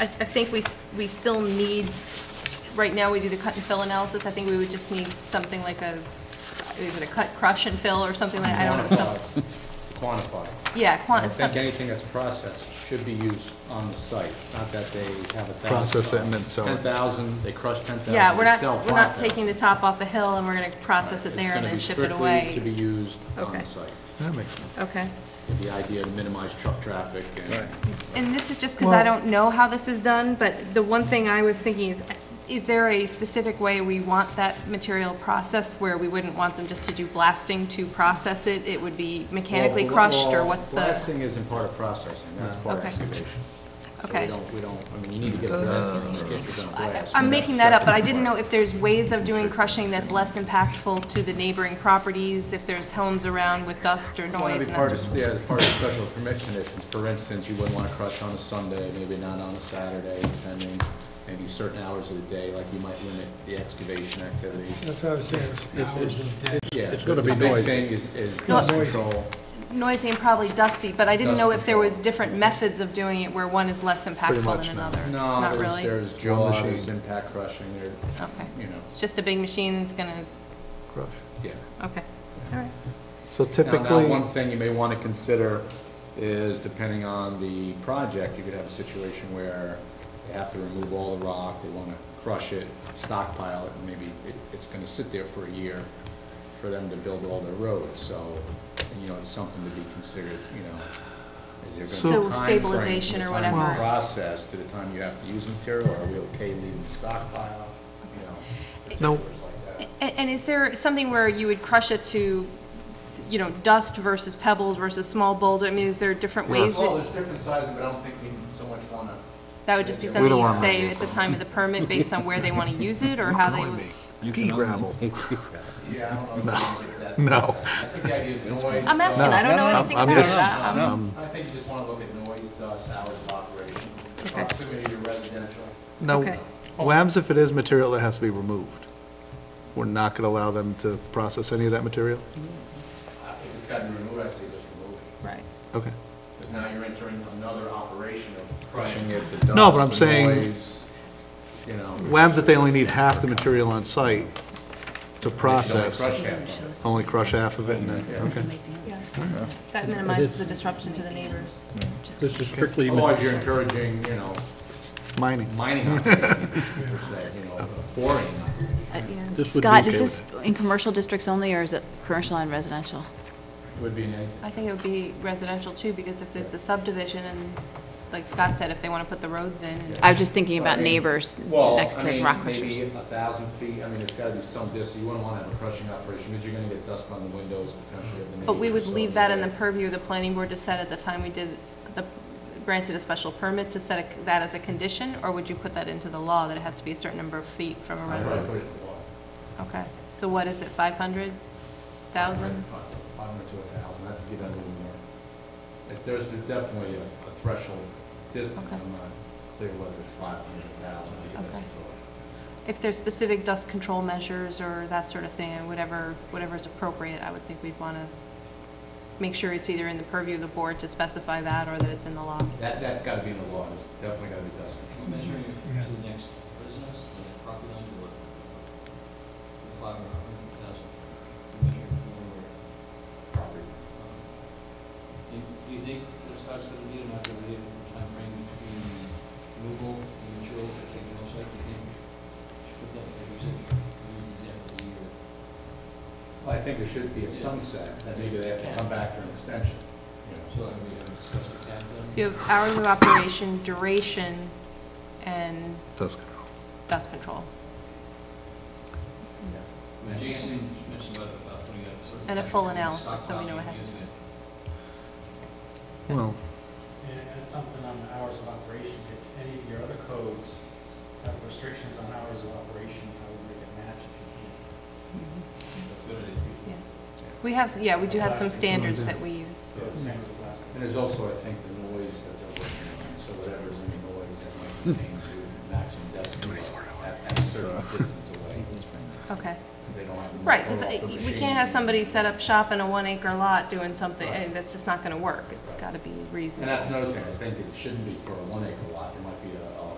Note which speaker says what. Speaker 1: I, I think we, s- we still need, right now, we do the cut and fill analysis, I think we would just need something like a, is it a cut, crush and fill or something like, I don't know, some,
Speaker 2: Quantify, quantify.
Speaker 1: yeah,
Speaker 2: I don't
Speaker 1: quant, some,
Speaker 2: think anything that's processed should be used on the site, not that they have a thousand.
Speaker 3: Process it and then sell it.
Speaker 2: Ten thousand, they crush ten thousand.
Speaker 1: yeah, we're not, we're not taking the top off the hill and we're gonna process it there and then ship it
Speaker 2: It's
Speaker 1: away.
Speaker 2: gonna be strictly to be used on
Speaker 1: Okay.
Speaker 2: the site.
Speaker 3: That makes sense.
Speaker 1: Okay,
Speaker 2: with The idea to minimize truck traffic and.
Speaker 1: and this is just because I
Speaker 3: Well-
Speaker 1: don't know how this is done, but the one thing I was thinking is, is there a specific way we want that material processed where we wouldn't want them just to do blasting to process it? It would be mechanically
Speaker 2: Well,
Speaker 1: crushed, or
Speaker 2: well,
Speaker 1: what's the? Uh,
Speaker 2: Blasting isn't part of processing, that's part of
Speaker 1: Okay.
Speaker 2: excavation. So
Speaker 1: Okay. Uh,
Speaker 2: We don't, we don't, I mean, you need to get a blasting, you need to get your blast.
Speaker 1: I'm making that up, but I didn't know if there's ways of doing crushing that's less impactful to the neighboring properties, if there's homes around with dust or
Speaker 2: Well,
Speaker 1: noise.
Speaker 2: it'd
Speaker 1: and
Speaker 2: be part
Speaker 1: that's-
Speaker 2: of, yeah, it's part of special permit conditions. For instance, you wouldn't want to crush on a Sunday, maybe not on a Saturday, depending, maybe certain hours of the day, like you might limit the excavation activities.
Speaker 4: That's what I was saying, it's hours of the day.
Speaker 2: Yeah,
Speaker 3: It's gonna be
Speaker 2: the big
Speaker 3: noisy.
Speaker 2: thing is, is
Speaker 1: Not
Speaker 2: dust control.
Speaker 1: Noisy and probably dusty, but I didn't know
Speaker 2: Dust
Speaker 1: if there was
Speaker 2: control.
Speaker 1: different methods of doing it where one is less impactful
Speaker 3: much,
Speaker 1: than
Speaker 3: no.
Speaker 1: another.
Speaker 2: No,
Speaker 1: Not
Speaker 2: there's,
Speaker 1: really? Okay.
Speaker 2: there's jaw,
Speaker 3: machine.
Speaker 2: there's impact crushing, there, you know,
Speaker 1: It's just a big machine that's gonna,
Speaker 3: Crush.
Speaker 2: yeah.
Speaker 1: okay, all right.
Speaker 3: So
Speaker 2: Now, now,
Speaker 3: typically,
Speaker 2: one thing you may want to consider is, depending on the project, you could have a situation where they have to remove all the rock, they want to crush it, stockpile it, and maybe it- it's going to sit there for a year for them to build all their roads, so, you know, it's something to be considered, you know. is there gonna be
Speaker 1: So- So
Speaker 2: a timeframe from
Speaker 1: stabilization or
Speaker 2: The time
Speaker 1: whatever.
Speaker 2: you process to the time you have to use material, or are we okay leaving the stockpile, you know,
Speaker 3: No.
Speaker 2: particulars like that.
Speaker 1: A- And is there something where you would crush it to, you know, dust versus pebbles versus small boulder? I mean, is there different ways? that-
Speaker 2: Well, Oh, there's different sizes, but I don't think we so much want to
Speaker 1: That would just be
Speaker 2: We
Speaker 1: something
Speaker 3: don't
Speaker 1: you'd
Speaker 3: wanna
Speaker 1: say
Speaker 3: make
Speaker 1: at the time of the permit, based on where they want to use it, or how they would...
Speaker 3: pea gravel.
Speaker 2: Yeah, I don't know. if we can get that.
Speaker 3: No.
Speaker 2: I think the idea is noise.
Speaker 1: I'm asking, I don't know
Speaker 3: I'm-
Speaker 1: anything
Speaker 3: I'm
Speaker 1: about
Speaker 3: just-
Speaker 1: that. I'm-
Speaker 3: Um,
Speaker 2: I think you just want to look at noise, dust, hours of operation,
Speaker 1: Okay.
Speaker 2: proximity to residential.
Speaker 3: Now,
Speaker 1: Okay.
Speaker 3: WAMs, if it is material that has to be removed, we're not going to allow them to process any of that material?
Speaker 2: Uh, If it's got to be removed, I say just remove it,
Speaker 1: Right.
Speaker 3: Okay.
Speaker 2: because now you're entering another operation of crushing it, the dust.
Speaker 3: No, but I'm
Speaker 2: the
Speaker 3: saying-
Speaker 2: noise, You know.
Speaker 3: WAMs, if they only need half the material on site to process,
Speaker 2: They should only crush half of it.
Speaker 3: only crush half of it and then, okay.
Speaker 1: That minimizes the disruption to the neighbors. Just-
Speaker 5: This is strictly,
Speaker 2: Otherwise, you're encouraging, you know,
Speaker 3: Mining.
Speaker 2: mining operations, per se, you know, boring.
Speaker 5: this would be
Speaker 6: Uh, Scott, is
Speaker 5: okay
Speaker 6: this
Speaker 5: with
Speaker 6: in commercial districts only, or is it commercial and residential?
Speaker 2: Would be nice.
Speaker 1: I think it would be residential too, because if it's a subdivision and, like Scott said, if they want to put the roads in, and-
Speaker 6: I was just thinking
Speaker 2: Well, I
Speaker 6: about
Speaker 2: mean-
Speaker 6: neighbors
Speaker 2: Well,
Speaker 6: next
Speaker 2: I
Speaker 6: to
Speaker 2: mean,
Speaker 6: rock crushers.
Speaker 2: Maybe a thousand feet, I mean, it's gotta be some distance, you wouldn't wanna have a crushing operation, because you're gonna get dust on the windows potentially of the neighbors.
Speaker 1: but we would
Speaker 2: so
Speaker 1: leave that in the
Speaker 2: anyway.
Speaker 1: purview of the planning board to set at the time we did, the granted a special permit to set a- that as a condition, or would you put that into the law, that it has to be a certain number of feet from a
Speaker 2: I'd probably put it
Speaker 1: residence?
Speaker 2: in the law.
Speaker 1: Okay, so what is it, 500,000?
Speaker 2: Five five hundred to a thousand, I have to give that a little more. If There's definitely a a threshold distance,
Speaker 1: Okay.
Speaker 2: I'm not clear whether it's five hundred, a thousand, I guess.
Speaker 1: Okay. If there's specific dust control measures or that sort of thing, whatever, whatever's appropriate, I would think we'd want to make sure it's either in the purview of the board to specify that or that it's in the law.
Speaker 2: That, that gotta be in the law, there's definitely gotta be dust control.
Speaker 7: Measuring it to the next business, the property line to what? Five or a hundred thousand. Measure from where
Speaker 2: property.
Speaker 7: um, Do you- do you think that Scott's gonna need an operative timeframe between the removal, the material, the taking off site, do you think? Should that, like you said, we need exactly a year?
Speaker 2: Well, I think there should be a sunset, that maybe they have to come back for an extension, you know.
Speaker 7: So have we uh, discussed the cap then?
Speaker 1: So you have hours of operation, duration, and
Speaker 3: Dust control.
Speaker 1: dust control,
Speaker 7: Now, Jason mentioned about, about putting up sort of.
Speaker 1: And a full analysis, so we know
Speaker 7: stockpiling
Speaker 1: ahead.
Speaker 7: and using it.
Speaker 3: Well,
Speaker 8: And and it's something on the hours of operation, if any of your other codes have restrictions on hours of operation, I would make it match if you can.
Speaker 7: That's a good idea.
Speaker 1: yeah. We have, yeah, we do have some standards that we use.
Speaker 2: Yeah, it's-
Speaker 8: Same as last.
Speaker 2: And there's also, I think, the noise that they're working on, so whatever's in the noise that might contain to maximum decibel at, at a certain distance away.
Speaker 1: Okay,
Speaker 2: They don't have. to move
Speaker 1: right, 'cause
Speaker 2: off
Speaker 1: I-
Speaker 2: the
Speaker 1: we
Speaker 2: machine.
Speaker 1: can't have somebody set up shop in a one-acre lot doing something,
Speaker 2: Right.
Speaker 1: eh, that's just not going to work. It's got to be reasonable.
Speaker 2: And that's another thing, I think it shouldn't be for a one acre lot, it might be